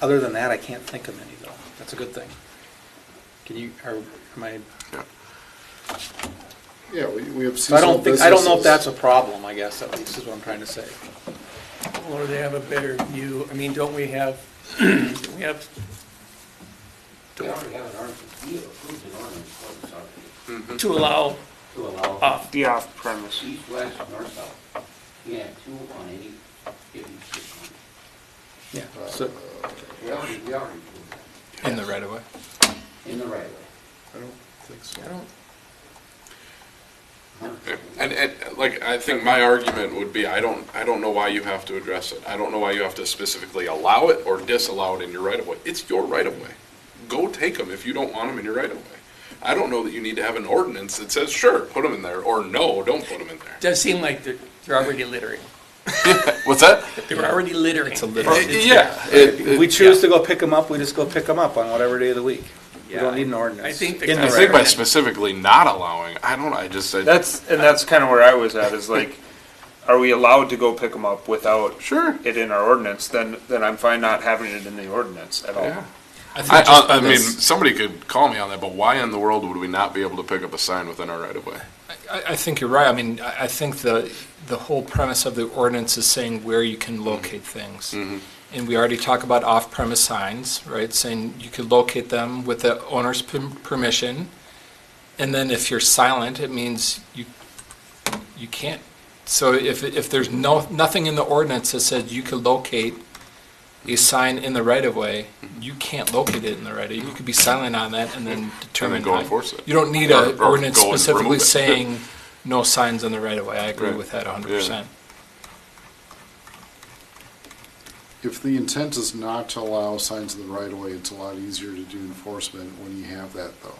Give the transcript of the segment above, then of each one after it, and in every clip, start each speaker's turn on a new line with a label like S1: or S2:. S1: Other than that, I can't think of any though. That's a good thing. Can you, are, am I,
S2: Yeah, we we have
S1: so I
S2: seasonal
S1: don't think,
S2: businesses.
S1: I don't know if that's a problem, I guess, at least is what I'm trying to say.
S3: Or they have a better view, I mean, don't we have, we have,
S4: We already have an ordinance, we have approved an ordinance for this already,
S2: Mm-hmm.
S3: to allow
S4: to allow
S3: off,
S5: The off-premise.
S4: east, west, north, south. We have two on any given street corner.
S1: Yeah,
S2: Uh,
S1: so,
S4: We already, we already approved that,
S6: in the right of way.
S4: in the right
S2: I don't think so.
S3: I don't,
S4: of way.
S7: And, and, like, I think my argument would be, I don't, I don't know why you have to address it. I don't know why you have to specifically allow it or disallow it in your right of way. It's your right of way. Go take them if you don't want them in your right of way. I don't know that you need to have an ordinance that says, sure, put them in there, or no, don't put them in there.
S3: does seem like they're, they're already littering.
S7: What's that?
S3: They're already littering.
S6: It's a litter.
S7: Yeah. it-
S1: if we choose to go pick them up, we just go pick them up on whatever day of the week. We don't need an ordinance.
S3: I think the-
S1: In
S7: I
S1: the
S7: think by
S1: right.
S7: specifically not allowing, I don't, I just said,
S5: That's, and that's kind of where I was at, is like, are we allowed to go pick them up without
S7: sure.
S5: it in our ordinance? Then, then I'm fine not having it in the ordinance at all.
S7: Yeah.
S6: I think
S7: I, uh,
S6: just
S7: I, I
S6: by
S7: mean,
S6: this-
S7: somebody could call me on that, but why in the world would we not be able to pick up a sign within our right of way?
S6: I, I think you're right. I mean, I, I think the, the whole premise of the ordinance is saying where you
S7: Mm-hmm.
S6: can locate things. And we already talk about off-premise signs, right? Saying you could locate them with the owner's perm- permission. And then if you're silent, it means you, you can't. So if, if there's no, nothing in the ordinance that says you could locate a sign in the right of way,
S7: Mm-hmm.
S6: you can't locate it in the right of, you could be silent on that and then determine.
S7: go
S6: how-
S7: enforce it.
S6: You don't need
S7: Or-
S6: an
S7: or
S6: ordinance
S7: go and remove
S6: specifically
S7: it.
S6: saying no signs in the right of way. I agree
S7: Right.
S6: with that hundred percent.
S2: If the intent is not to allow signs in the right of way, it's a lot easier to do enforcement when you have that though.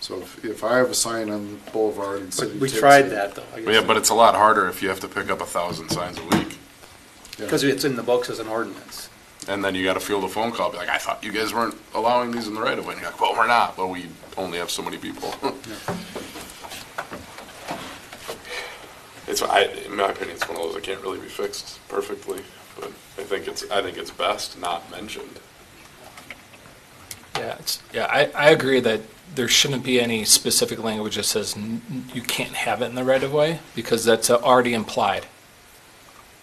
S2: So if, if I have a sign on the boulevard and
S1: But
S2: city
S1: we
S2: takes
S1: tried
S2: it-
S1: that though, I guess.
S7: Yeah, but it's a lot harder if you have to pick up a thousand signs a week.
S2: yeah.
S1: Because it's in the books as an ordinance.
S7: And then you gotta field a phone call, be like, I thought you guys weren't allowing these in the right of way. And you're like, well, we're not, but we only have so many people. It's, I, in my opinion, it's one of those that can't really be fixed perfectly, but I think it's, I think it's best not mentioned.
S6: Yeah, it's, yeah, I, I agree that there shouldn't be any specific language that says n- n- you can't have it in the right of way because that's already implied.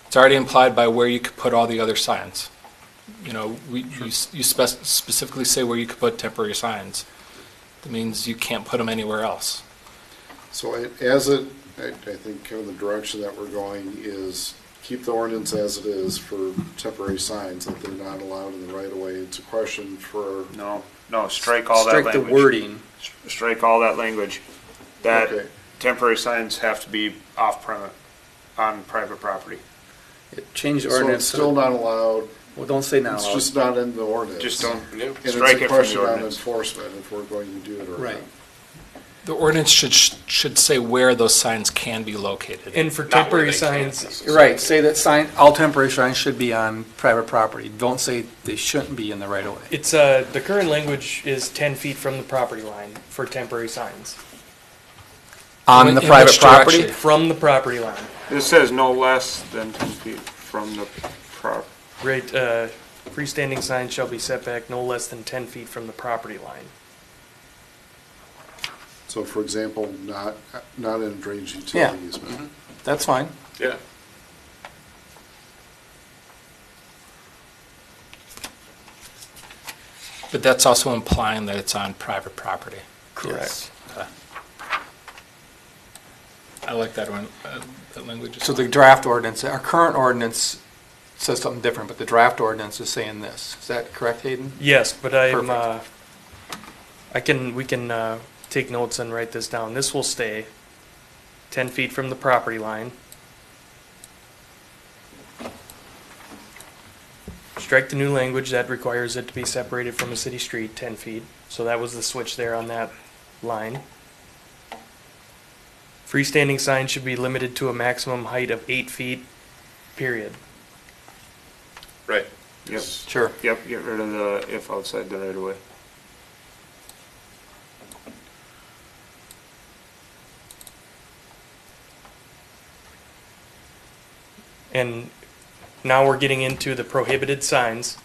S6: It's already implied by where you could put all the other signs. You know, we, you s- you spec- specifically say where you could put temporary signs. That means you can't put them anywhere else.
S2: So it- as it, I, I think kind of the direction that we're going is keep the ordinance as it is for temporary signs, that they're not allowed in the right of way. It's a question for,
S5: No, no, strike all that
S1: Strike
S5: language.
S1: the wording.
S5: Strike all that language.
S2: Okay.
S5: That temporary signs have to be off-premise, on private property.
S1: Change the
S2: so it's
S1: ordinance. to-
S2: still not allowed,
S1: Well, don't say not
S2: it's
S1: allowed.
S2: just not in the ordinance.
S5: Just don't,
S7: Yep.
S2: And
S5: strike it
S2: it's a
S5: from the
S2: question on
S5: ordinance.
S2: enforcement, if we're going to do it or not.
S1: Right.
S6: The ordinance should, should say where those signs can be located.
S3: And for
S7: Not where
S3: temporary
S7: they can't
S3: signs,
S1: You're Right, say that sign, all temporary signs should be on private property. Don't say they shouldn't be in the right of way.
S3: it's, uh, the current language is ten feet from the property line for temporary signs,
S6: In which direction?
S3: from the property line.
S5: this says no less than ten feet from the prop,
S3: Right, uh, freestanding signs shall be set back no less than ten feet from the property line.
S2: So for example, not, not in a drainage utility
S1: Yeah.
S2: easement.
S1: That's fine.
S7: Yeah.
S6: But that's also implying that it's on private property.
S3: Correct.
S6: I like that one, uh, that language. is
S8: So the
S6: fine.
S8: draft ordinance, our current ordinance says something different, but the draft ordinance is saying this. Is that correct, Hayden?
S3: Yes, but I'm, uh, I can, we can, uh, take notes and write this down. This will stay ten feet from the property line. Strike the new language that requires it to be separated from a city street ten feet, so that was the switch there on that line. Freestanding signs should be limited to a maximum height of eight feet, period.
S7: Right.
S5: yep,
S8: Sure.
S5: yep, get rid of the if outside the right of way.
S3: And now we're getting into the prohibited signs.